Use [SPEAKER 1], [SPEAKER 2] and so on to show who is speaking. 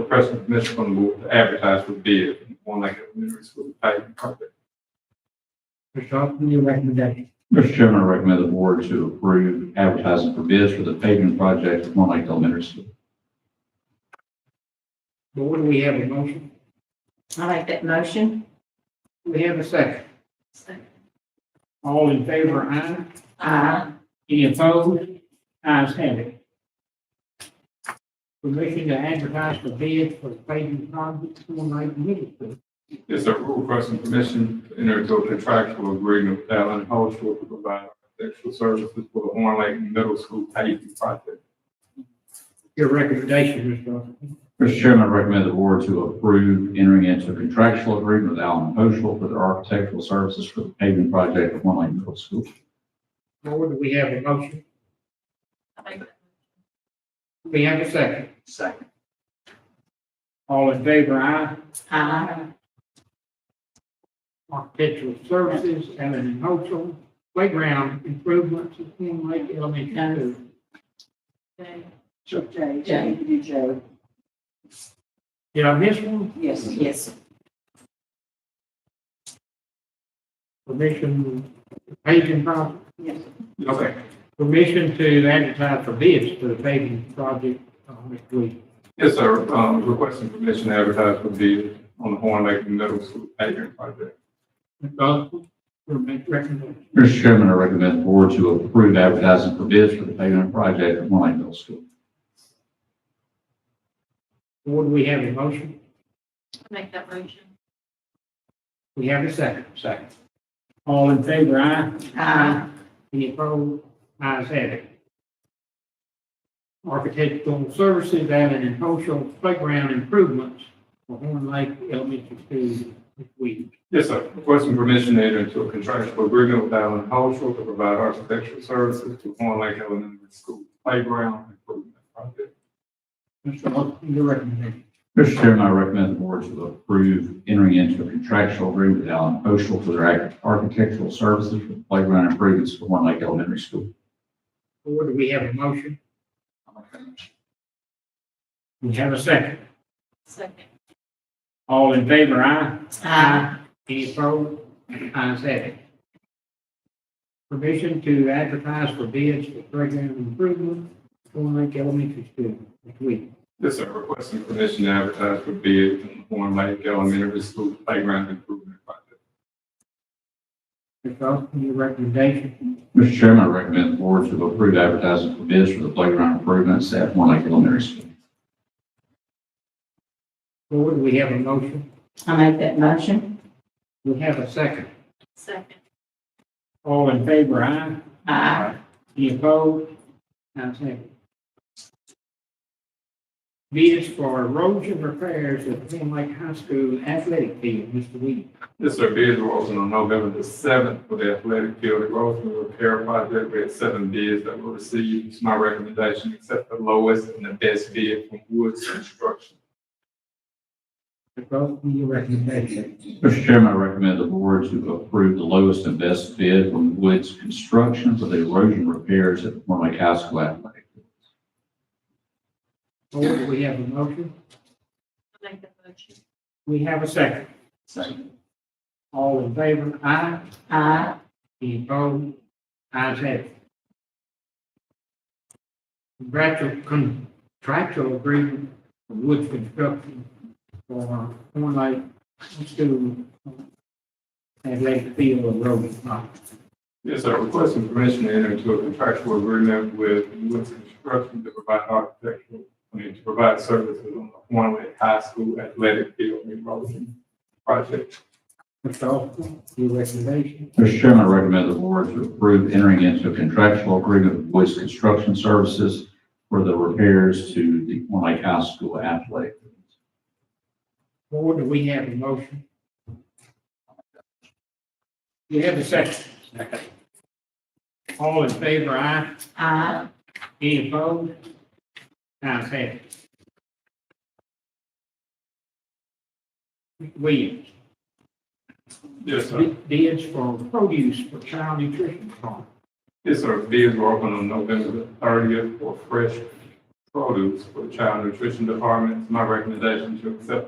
[SPEAKER 1] requesting permission from the board to advertise for bid on Lake Elementary School paving project.
[SPEAKER 2] Mr. Johnson, your recommendation.
[SPEAKER 3] Mr. Chairman, I recommend the board to approve advertising for bids for the paving project at One Lake Elementary School.
[SPEAKER 2] Board, we have a motion.
[SPEAKER 4] I like that motion.
[SPEAKER 2] We have a second. All in favor, aye.
[SPEAKER 4] Aye.
[SPEAKER 2] Any opposed? Ayes have it. Permission to advertise for bids for the paving project for Lake Middle School.
[SPEAKER 1] It's a requesting permission to enter into a contractual agreement with Allen Cultural to provide architectural services for the Horn Lake Middle School paving project.
[SPEAKER 2] Your recommendation, Mr. Johnson.
[SPEAKER 3] Mr. Chairman, I recommend the board to approve entering into a contractual agreement with Allen Oshel for their architectural services for the paving project at One Lake Middle School.
[SPEAKER 2] Board, we have a motion. We have a second.
[SPEAKER 5] Second.
[SPEAKER 2] All in favor, aye.
[SPEAKER 4] Aye.
[SPEAKER 2] architectural services, Allen Cultural, playground improvements at Twin Lake Elementary School.
[SPEAKER 5] J,
[SPEAKER 4] J.
[SPEAKER 5] you do J.
[SPEAKER 2] Did I miss one?
[SPEAKER 5] Yes.
[SPEAKER 4] Yes.
[SPEAKER 2] Permission, paving project,
[SPEAKER 5] Yes.
[SPEAKER 1] Okay.
[SPEAKER 2] permission to advertise for bids for the paving project uh, on Lake Lee.
[SPEAKER 1] Yes, sir. Um, requesting permission to advertise for bid on the Horn Lake Middle School paving project.
[SPEAKER 2] Mr. Osborne, your recommendation.
[SPEAKER 3] Mr. Chairman, I recommend the board to approve advertising for bids for the paving project at One Lake Middle School.
[SPEAKER 2] Board, we have a motion,
[SPEAKER 4] Make that motion.
[SPEAKER 2] we have a second. Second. All in favor, aye?
[SPEAKER 4] Aye.
[SPEAKER 2] Any opposed? Ayes have it. Architectural services, Allen and Cultural playground improvements for Horn Lake Elementary School this week.
[SPEAKER 1] Yes, sir. Requesting permission to enter into a contractual agreement with Allen Cultural to provide architectural services to Horn Lake Elementary School playground improvement project.
[SPEAKER 2] Mr. Austin, your recommendation.
[SPEAKER 3] Mr. Chairman, I recommend the board to approve entering into a contractual agreement with Allen Oshel for their architectural services for the playground improvements for One Lake Elementary School.
[SPEAKER 2] Board, do we have a motion? We have a second.
[SPEAKER 4] Second.
[SPEAKER 2] All in favor, aye?
[SPEAKER 4] Aye.
[SPEAKER 2] Any opposed? Ayes have it. Permission to advertise for bids for playground improvement for Horn Lake Elementary School this week.
[SPEAKER 1] Yes, sir. Requesting permission to advertise for bid on the Horn Lake Elementary School playground improvement project.
[SPEAKER 2] Mr. Austin, your recommendation.
[SPEAKER 3] Mr. Chairman, I recommend the board to approve advertising for bids for the playground improvements at One Lake Elementary School.
[SPEAKER 2] Board, we have a motion.
[SPEAKER 4] I make that motion.
[SPEAKER 2] We have a second.
[SPEAKER 4] Second.
[SPEAKER 2] All in favor, aye.
[SPEAKER 4] Aye.
[SPEAKER 2] Any opposed? Ayes have it. Bids for erosion repairs at Twin Lake High School athletic field, Mr. Weed.
[SPEAKER 1] Yes, sir. Bids were open on November the seventh for the athletic field erosion repair project. We had seven bids that were received. It's my recommendation, accept the lowest and the best bid from Woods Construction.
[SPEAKER 2] Mr. Austin, your recommendation.
[SPEAKER 3] Mr. Chairman, I recommend the board to approve the lowest and best bid from Woods Construction for the erosion repairs at One Lake High School Athletic.
[SPEAKER 2] Board, we have a motion.
[SPEAKER 4] I make that motion.
[SPEAKER 2] We have a second.
[SPEAKER 3] Second.
[SPEAKER 2] All in favor, aye.
[SPEAKER 4] Aye.
[SPEAKER 2] Any opposed? Ayes have it. Contractual, contractual agreement with Woods Construction for Horn Lake School athletic field and road project.
[SPEAKER 1] Yes, sir. Requesting permission to enter into a contractual agreement with Woods Construction to provide architectural, I mean, to provide services on the Horn Lake High School athletic field remodeling project.
[SPEAKER 2] Mr. Austin, your recommendation.
[SPEAKER 3] Mr. Chairman, I recommend the board to approve entering into a contractual agreement with Woods Construction Services for the repairs to the One Lake High School Athletic.
[SPEAKER 2] Board, do we have a motion? We have a second. All in favor, aye?
[SPEAKER 4] Aye.
[SPEAKER 2] Any opposed? Ayes have it. Mr. Williams,
[SPEAKER 1] Yes, sir.
[SPEAKER 2] bid- bids for produce for child nutrition farm.
[SPEAKER 1] Yes, sir. Bids were open on November the thirtieth for fresh produce for the child nutrition department. It's my recommendation to accept